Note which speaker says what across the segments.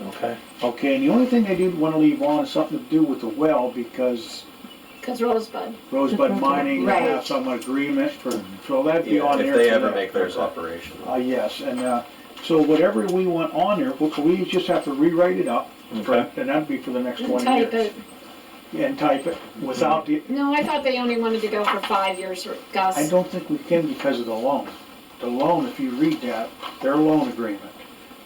Speaker 1: Okay.
Speaker 2: Okay, and the only thing I did want to leave on is something to do with the well, because
Speaker 3: Because Rosebud.
Speaker 2: Rosebud Mining
Speaker 4: Right.
Speaker 2: have some agreement for, so that'd be on there.
Speaker 1: If they
Speaker 2: for
Speaker 1: ever
Speaker 2: that.
Speaker 1: make theirs operational.
Speaker 2: Uh, yes, and, uh, so whatever we want on there, we- we just have to rewrite it up,
Speaker 1: Okay.
Speaker 2: and that'd be for the next
Speaker 3: And
Speaker 2: twenty
Speaker 3: type
Speaker 2: years.
Speaker 3: it.
Speaker 2: And type it, without the,
Speaker 3: No, I thought they only wanted to go for five years,
Speaker 2: I
Speaker 3: Gus.
Speaker 2: don't think we can because of the loan. The loan, if you read that, their loan agreement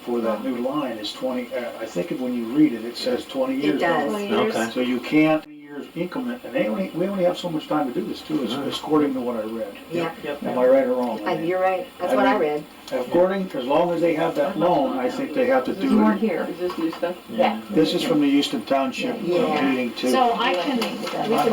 Speaker 2: for that new line is twenty, uh, I think when you read it, it says twenty years.
Speaker 4: It does.
Speaker 3: Twenty years.
Speaker 1: Okay.
Speaker 2: So you can't years increment, and they only, we only have so much time to do this too, is- is according to what I read.
Speaker 4: Yeah,
Speaker 2: Am I right or wrong?
Speaker 4: I- you're right, that's what I read.
Speaker 2: According, as long as they have that loan, I think they have to
Speaker 5: There's more
Speaker 2: do it.
Speaker 5: here.
Speaker 6: Is this new stuff?
Speaker 4: Yeah.
Speaker 2: This is from the Houston Township
Speaker 4: Yeah.
Speaker 2: meeting too.
Speaker 3: So I can, we can
Speaker 2: If I have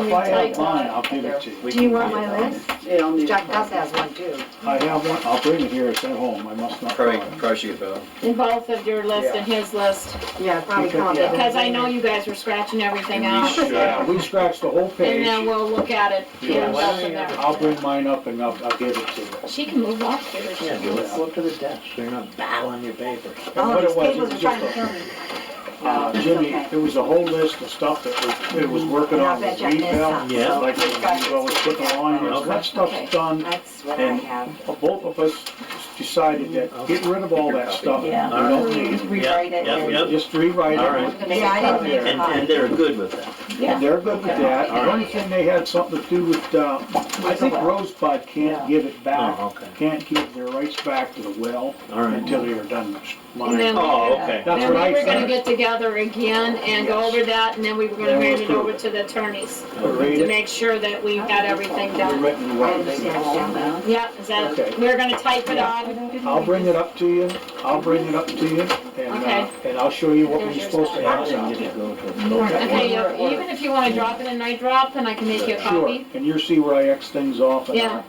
Speaker 2: mine,
Speaker 3: retype on
Speaker 2: I'll give it to you.
Speaker 4: Do you want my list?
Speaker 6: Yeah, I'll need.
Speaker 4: Jack Gus has one too.
Speaker 2: I have one, I'll bring it here, it's at home, I must not.
Speaker 1: Probably, probably should get Bill.
Speaker 3: it, in both of your list and his list,
Speaker 4: Yeah, probably
Speaker 2: Because-
Speaker 4: call it.
Speaker 3: because I know you guys were scratching everything out.
Speaker 2: Yeah, we scratched the whole
Speaker 3: And
Speaker 2: page.
Speaker 3: then we'll look at it.
Speaker 2: Yeah,
Speaker 3: and
Speaker 2: why
Speaker 3: stuff
Speaker 2: don't
Speaker 3: in there.
Speaker 2: I'll bring mine up and I'll, I'll give it to you.
Speaker 3: She can move off here. she
Speaker 5: Yeah,
Speaker 3: wants.
Speaker 5: go to the desk, so you're not battling your papers.
Speaker 2: And
Speaker 4: Oh,
Speaker 2: what it
Speaker 4: these
Speaker 2: was, it
Speaker 4: papers
Speaker 2: was
Speaker 4: are trying to
Speaker 2: just a-
Speaker 4: kill me.
Speaker 2: Uh, Jimmy, it was a whole list of stuff that was, it was working
Speaker 4: And I'll
Speaker 2: on with
Speaker 4: bet you I missed
Speaker 2: retail.
Speaker 4: some.
Speaker 5: Yeah.
Speaker 2: Like, well, was putting on, you know, that stuff's done.
Speaker 4: That's what I
Speaker 2: And
Speaker 4: have.
Speaker 2: both of us decided that, get rid of all that stuff. We
Speaker 5: Yeah.
Speaker 2: don't need
Speaker 4: Please
Speaker 2: it.
Speaker 4: rewrite it.
Speaker 5: Yep,
Speaker 4: and-
Speaker 5: yep,
Speaker 2: Just rewrite
Speaker 5: All right.
Speaker 2: it.
Speaker 4: Yeah, I didn't make a
Speaker 5: And,
Speaker 4: copy.
Speaker 5: and they're good with that.
Speaker 3: Yeah.
Speaker 2: They're good with that.
Speaker 5: All
Speaker 2: The
Speaker 5: right.
Speaker 2: only thing they had something to do with, uh, I think Rosebud can't give it back.
Speaker 5: Oh, okay.
Speaker 2: Can't give their rights back to the well
Speaker 5: All right.
Speaker 2: until they are done
Speaker 3: And then
Speaker 2: mining.
Speaker 5: Oh,
Speaker 3: we-
Speaker 5: okay.
Speaker 2: That's
Speaker 3: Then
Speaker 2: what I
Speaker 3: we were gonna
Speaker 2: said.
Speaker 3: get together again and go
Speaker 2: Yes.
Speaker 3: over that, and then we were gonna
Speaker 2: Then we'll
Speaker 3: hand it over
Speaker 2: approve
Speaker 3: to the attorneys
Speaker 2: Read
Speaker 3: to
Speaker 2: it.
Speaker 3: make sure that we got everything
Speaker 2: The
Speaker 3: done.
Speaker 2: written
Speaker 4: I
Speaker 2: way.
Speaker 4: understand that now.
Speaker 3: Yeah, is that,
Speaker 2: Okay.
Speaker 3: we're gonna type it on,
Speaker 2: I'll bring it up to you, I'll bring it up to you, and,
Speaker 3: Okay.
Speaker 2: uh, and I'll show you what we're
Speaker 3: There's your
Speaker 2: supposed to
Speaker 3: stuff.
Speaker 2: have
Speaker 5: Then
Speaker 2: out
Speaker 5: you
Speaker 2: there.
Speaker 5: could go to-
Speaker 3: okay, you- even if you wanna drop it in night drop, then I can make you a
Speaker 2: Sure,
Speaker 3: copy.
Speaker 2: and you'll see where I X things off and,
Speaker 3: Yeah.
Speaker 2: uh,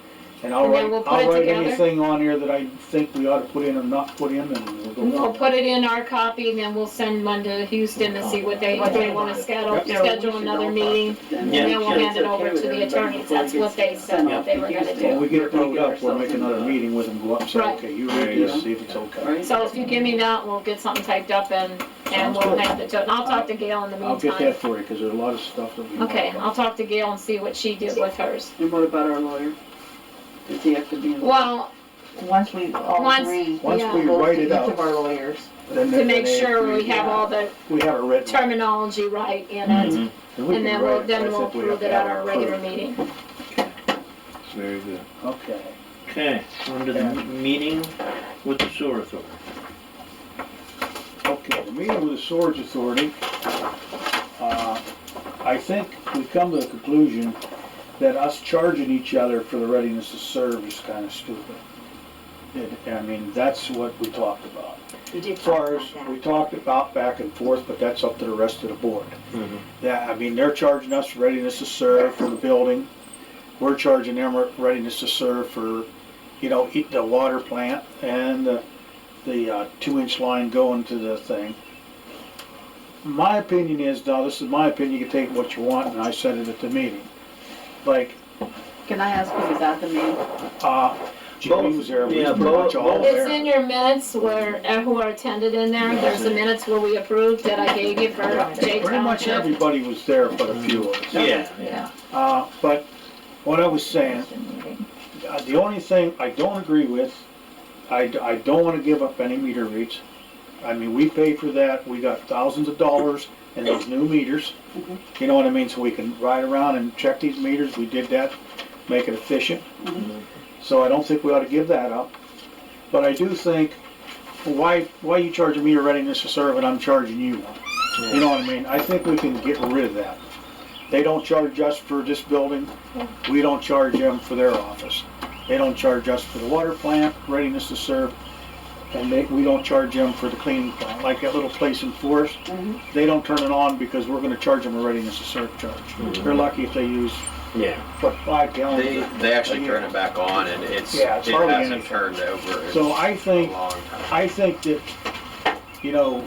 Speaker 2: and I'll
Speaker 3: And then
Speaker 2: write,
Speaker 3: we'll put
Speaker 2: I'll
Speaker 3: it
Speaker 2: write
Speaker 3: together.
Speaker 2: anything on here that I think we ought to put in or not put in, and we'll go.
Speaker 3: We'll put it in our copy, and then we'll send one to Houston to see what they, what they wanna schedule, schedule another meeting, and then we'll hand it over to the attorneys, that's what they said that they were gonna
Speaker 2: When
Speaker 3: do.
Speaker 2: we get it wrote up, we'll make another meeting with them, go up, and say,
Speaker 3: Right.
Speaker 2: okay, you read this, see if it's okay.
Speaker 3: So if you give me that, we'll get something typed up and, and
Speaker 2: Sounds
Speaker 3: we'll
Speaker 2: good.
Speaker 3: hand it to, and I'll talk to Gail in the
Speaker 2: I'll get that
Speaker 3: meantime.
Speaker 2: for you, because there's a lot of stuff that we. want
Speaker 3: Okay,
Speaker 2: to-
Speaker 3: I'll talk to Gail and see what she did with hers.
Speaker 6: And what about our lawyer? Does he have to be? involved?
Speaker 3: Well,
Speaker 7: Once we all
Speaker 3: Once-
Speaker 7: agree,
Speaker 2: Once
Speaker 3: yeah.
Speaker 2: we
Speaker 7: goes
Speaker 2: write
Speaker 7: to
Speaker 2: it
Speaker 7: each of
Speaker 2: out,
Speaker 7: our lawyers.
Speaker 2: then.
Speaker 3: to
Speaker 2: then
Speaker 3: make
Speaker 2: they-
Speaker 3: sure we have all the
Speaker 2: We have it written.
Speaker 3: terminology right in it,
Speaker 2: we
Speaker 3: and
Speaker 2: can
Speaker 3: then
Speaker 2: write
Speaker 3: we'll,
Speaker 2: it,
Speaker 3: then
Speaker 2: but I
Speaker 3: we'll
Speaker 2: think we
Speaker 3: approve
Speaker 2: have
Speaker 3: it
Speaker 2: to
Speaker 3: at
Speaker 2: have
Speaker 3: our regular
Speaker 2: approved.
Speaker 3: meeting.
Speaker 1: Mm-hmm.
Speaker 5: Very good.
Speaker 2: Okay.
Speaker 5: Okay, on to the
Speaker 2: Yeah.
Speaker 5: m- meeting with the sewer authority.
Speaker 2: Okay, the meeting with the Swords Authority, uh, I think we come to the conclusion that us charging each other for the readiness to serve is kind of stupid. It- I mean, that's what we talked about.
Speaker 4: You did
Speaker 2: As
Speaker 4: talk
Speaker 2: far
Speaker 4: about
Speaker 2: as, we
Speaker 4: that.
Speaker 2: talked about back and forth, but that's up to the rest of the board.
Speaker 5: Mm-hmm.
Speaker 2: Yeah, I mean, they're charging us readiness to serve for the building. We're charging them readiness to serve for, you know, eat the water plant and the, the uh, two-inch line going to the thing. My opinion is, now, this is my opinion, you can take what you want, and I said it at the meeting. Like,
Speaker 6: Can I ask who was at the meeting?
Speaker 2: uh, Jimmy was there, we
Speaker 5: Yeah,
Speaker 2: was pretty much all
Speaker 5: both-
Speaker 3: It's
Speaker 2: there.
Speaker 3: in your minutes where, uh, who are attended in there, there's the minutes where we approved that I gave you for Jay
Speaker 2: Pretty much
Speaker 3: Township.
Speaker 2: everybody was there but a few of us.
Speaker 5: Yeah, yeah.
Speaker 2: Uh, but what I was saying, uh, the only thing I don't agree with, I, d- I don't wanna give up any meter reads. I mean, we paid for that, we got thousands of dollars in those new meters. You know what I mean, so we can ride around and check these meters, we did that, make it efficient. So I don't think we ought to give that up. But I do think, why, why you charging me a readiness to serve and I'm charging you one? You know what I mean? I think we can get rid of that. They don't charge us for this building, we don't charge them for their office. They don't charge us for the water plant, readiness to serve, and they, we don't charge them for the cleaning plant. Like that little place in Forest, they don't turn it on because we're gonna charge them a readiness to serve charge. They're lucky if they use,
Speaker 5: Yeah.
Speaker 2: what, five gallons?
Speaker 1: They, they actually turn it back on and it's,
Speaker 2: Yeah,
Speaker 1: it
Speaker 2: it's hardly
Speaker 1: hasn't
Speaker 2: anything.
Speaker 1: turned over in
Speaker 2: So I
Speaker 1: a
Speaker 2: think
Speaker 1: long time.
Speaker 2: I think that, you know,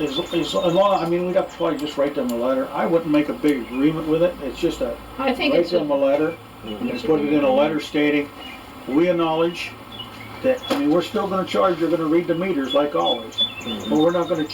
Speaker 2: as, as long, I mean, we'd have to probably just write them a letter. I wouldn't make a big agreement with it, it's just a,
Speaker 3: I think
Speaker 2: write
Speaker 3: it's,
Speaker 2: them a letter and put it in a letter stating, we acknowledge that, I mean, we're still gonna charge, you're gonna read the meters like always, but we're not gonna